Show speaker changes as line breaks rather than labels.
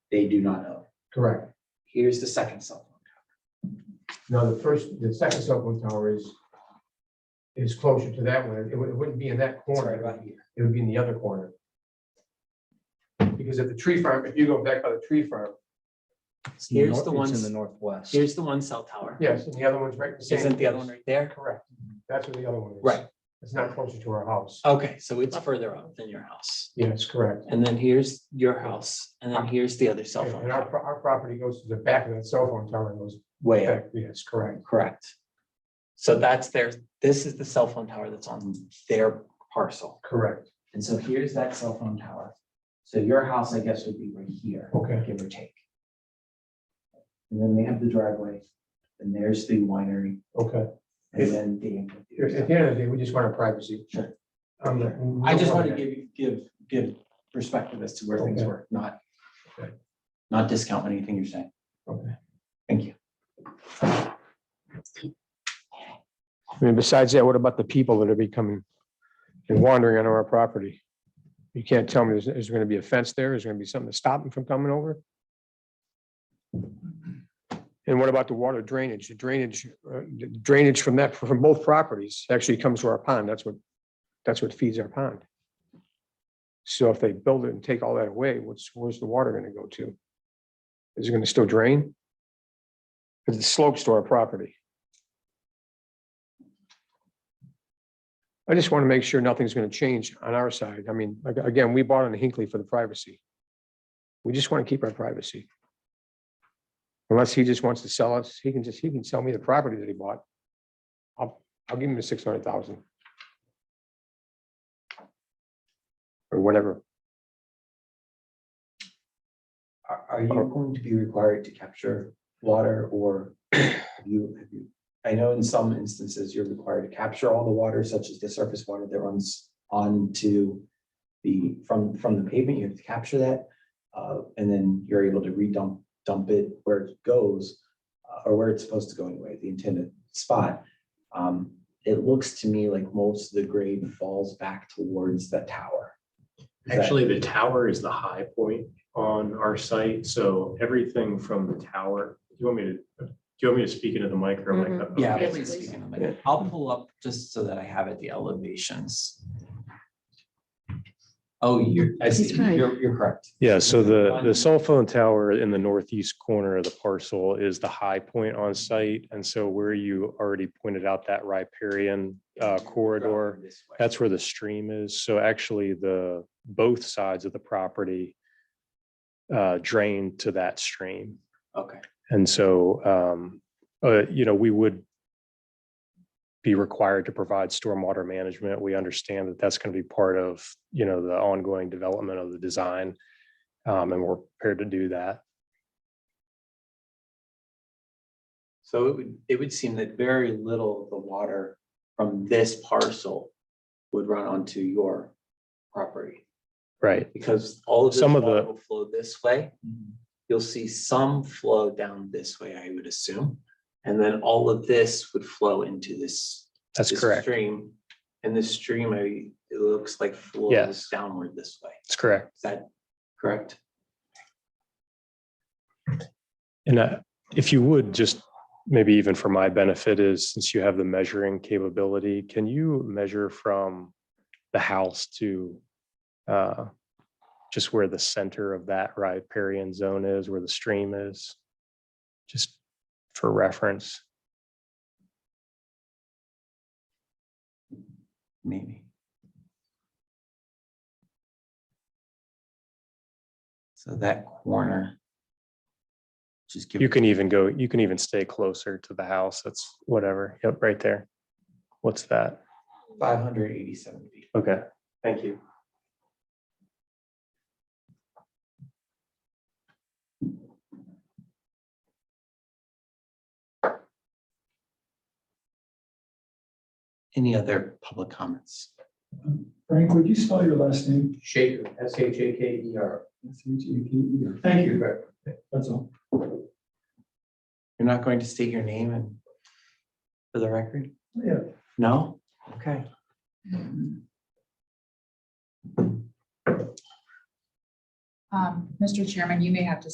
they do not know.
Correct.
Here's the second cell phone.
Now, the first, the second cell phone tower is, is closer to that one. It wou- it wouldn't be in that
It's right
corner.
about here.
It would be in the other corner. Because if the tree farm, if you go back by the tree farm,
Here's the
Nor- it's In the
one,
northwest.
here's the one cell tower.
yes, and the other one's right. same
Isn't the other
place.
one right there?
Correct. That's where the other one is.
Right. Oh.
It's not closer to our house.
Okay, so it's further up than your house.
Yes, correct.
And then here's your house, and then here's the other cell phone
And our,
tower.
pro- our property goes to the back of that cell phone tower and goes
Way up,
back. Yes, correct.
correct. So that's their, this is the cell phone tower that's on their parcel.
Correct.
And so here's that cell phone tower. So your house, I guess, would be right here,
Okay.
give or take. And then they have the driveway, and there's the winery,
Okay.
and then the.
At
amphitheater.
the end of the day, we just want our privacy.
Sure.
I'm not-
I just want to give, you- give, give perspective as to where things
Okay.
were, not,
Okay.
not discount anything you're saying.
Okay.
Thank you.
I mean, besides that, what about the people that are becoming and wandering onto our property? You can't tell me, is, is there gonna be a fence there? Is there gonna be something to stop them from coming over? And what about the water drainage? The drainage, uh, the drainage from that, from both properties actually comes to our pond. That's what, that's what feeds our pond. So if they build it and take all that away, what's, where's the water gonna go to? Is it gonna still drain? Because it slopes to our property. I just want to make sure nothing's going to change on our side. I mean, ag- again, we bought on Hinckley for the privacy. We just want to keep our privacy. Unless he just wants to sell us, he can just, he can sell me the property that he bought. I'll, I'll give him the six hundred thousand. Or whatever.
Are, are you going to be required to capture water or have you, have you? I know in some instances you're required to capture all the water, such as the surface water that runs onto the, from, from the pavement, you have to capture that. Uh, and then you're able to redump, dump it where it goes, uh, or where it's supposed to go anyway, the intended spot. Um, it looks to me like most of the grade falls back towards the tower. Is that-
Actually, the tower is the high point on our site, so everything from the tower, do you want me to, do you want me to speak into the mic or am I? cut-
Yeah,
okay.
please speak in a minute. I'll pull up just so that I have it, the elevations.
Oh, you're, I see,
He's right.
you're, you're correct.
Yeah, so the,
One-
the cell phone tower in the northeast corner of the parcel is the high point on site. And so where you already pointed out that riparian uh, corridor,
This way.
that's where the stream is. So actually the, both sides of the property uh, drain to that stream.
Okay.
And so, um, uh, you know, we would be required to provide stormwater management. We understand that that's going to be part of, you know, the ongoing development of the design. Um, and we're prepared to do that.
So it would, it would seem that very little of the water
From this parcel would run onto your property
Right.
because all of this
Some of
water
the- Mm-hmm.
will flow this way. You'll see some flow down this way, I would assume. And then all of this would flow into this.
That's
this
correct.
Stream. And this stream, I, it looks like flows
Yes.
downward this way.
That's correct.
Is that correct?
And uh, if you would, just maybe even for my benefit is, since you have the measuring capability, can you measure from the house to uh, just where the center of that riparian zone is, where the stream is? Just for reference.
maybe. So that corner. Just give.
You can even go, you can even stay closer to the house. That's whatever. Yep, right there. What's that?
Five hundred eighty-seven feet.
Okay.
Thank you.
Any other public comments?
Frank, would you spell your last name?
Shaker, S H A K E R.
S H A K E R. Thank you, that's all.
You're not going to state your name and for the record?
Yeah.
No? Okay.
Um, Mr. Chairman, you may have to